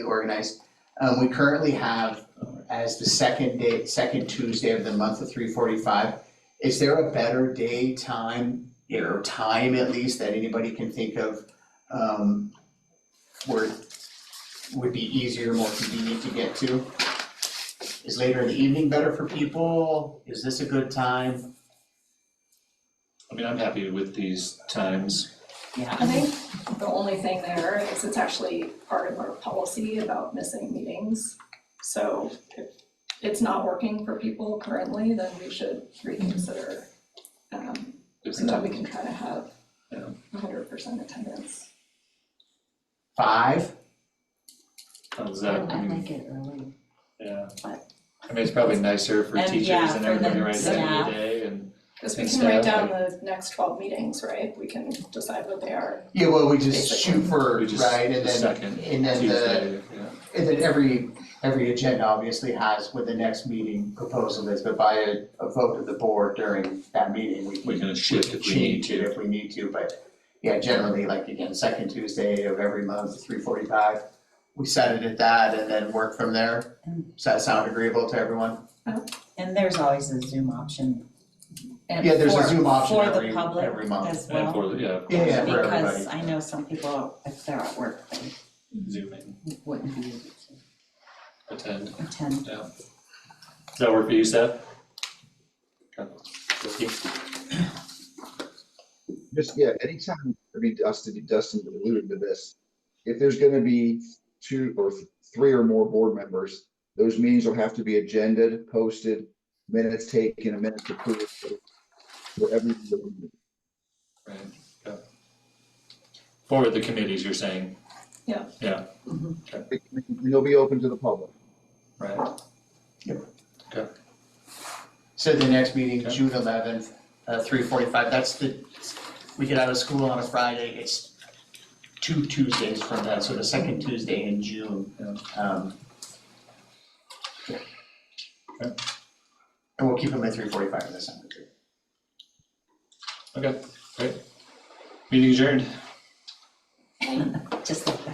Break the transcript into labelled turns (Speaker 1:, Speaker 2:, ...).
Speaker 1: organized. Um, we currently have as the second day, second Tuesday of the month of three forty-five. Is there a better day, time, or time at least that anybody can think of, um, where it would be easier, more convenient to get to? Is later in the evening better for people? Is this a good time?
Speaker 2: I mean, I'm happy with these times.
Speaker 3: I think the only thing there is it's actually part of our policy about missing meetings. So if it's not working for people currently, then we should reconsider. um, So that we can try to have
Speaker 2: Yeah.
Speaker 3: hundred percent attendance.
Speaker 1: Five?
Speaker 2: How's that? I
Speaker 4: I
Speaker 2: mean,
Speaker 4: like it early.
Speaker 2: Yeah.
Speaker 4: But-
Speaker 2: I mean, it's probably nicer for
Speaker 4: And,
Speaker 2: teachers
Speaker 4: yeah,
Speaker 2: and
Speaker 4: for the
Speaker 2: everybody right at the end of
Speaker 4: staff.
Speaker 2: the day and,
Speaker 3: Because we
Speaker 2: And
Speaker 3: can write
Speaker 2: staff,
Speaker 3: down the next twelve meetings, right? We can decide what they are.
Speaker 1: Yeah, well, we just shoot for,
Speaker 2: We just-
Speaker 1: right, and
Speaker 2: the
Speaker 1: then,
Speaker 2: second
Speaker 1: and then the,
Speaker 2: Tuesday, yeah.
Speaker 1: And then every, every agenda obviously has what the next meeting proposal is, but by a, a vote of the board during that meeting, we
Speaker 2: We
Speaker 1: can
Speaker 2: can shift if we need
Speaker 1: change it
Speaker 2: to.
Speaker 1: if we need to, but yeah, generally, like again, second Tuesday of every month, three forty-five, we set it at that and then work from there. Does that sound agreeable to everyone?
Speaker 4: And there's always a Zoom option. and
Speaker 1: Yeah, there's a
Speaker 4: for-
Speaker 1: Zoom option
Speaker 4: for the
Speaker 1: every-
Speaker 4: public
Speaker 1: every month.
Speaker 4: as
Speaker 2: And
Speaker 4: well.
Speaker 2: for, the- yeah,
Speaker 1: Yeah, yeah, for everybody.
Speaker 4: Because I know some people, if they're at work, they
Speaker 2: zooming,
Speaker 4: wouldn't be able
Speaker 2: attend. Does
Speaker 4: to attend.
Speaker 2: that work for you, Seth? Okay.
Speaker 5: Just, yeah, anytime, I mean, Dustin, Dustin alluded to this. If there's gonna be two or th- three or more board members, those meetings will have to be agended, posted, minutes taken, and minutes approved. so For every,
Speaker 2: Right, yeah. For the committees, you're saying,
Speaker 5: and they'll be open to the public.
Speaker 2: right?
Speaker 1: So the next meeting,
Speaker 2: Okay.
Speaker 1: June eleventh, uh, three forty-five, that's the, we get out of school on a Friday, it's two Tuesdays from that, so the second Tuesday in June. Um, yeah. And we'll keep them at three forty-five this time.
Speaker 2: Okay, great. Meeting adjourned.
Speaker 4: Just like that.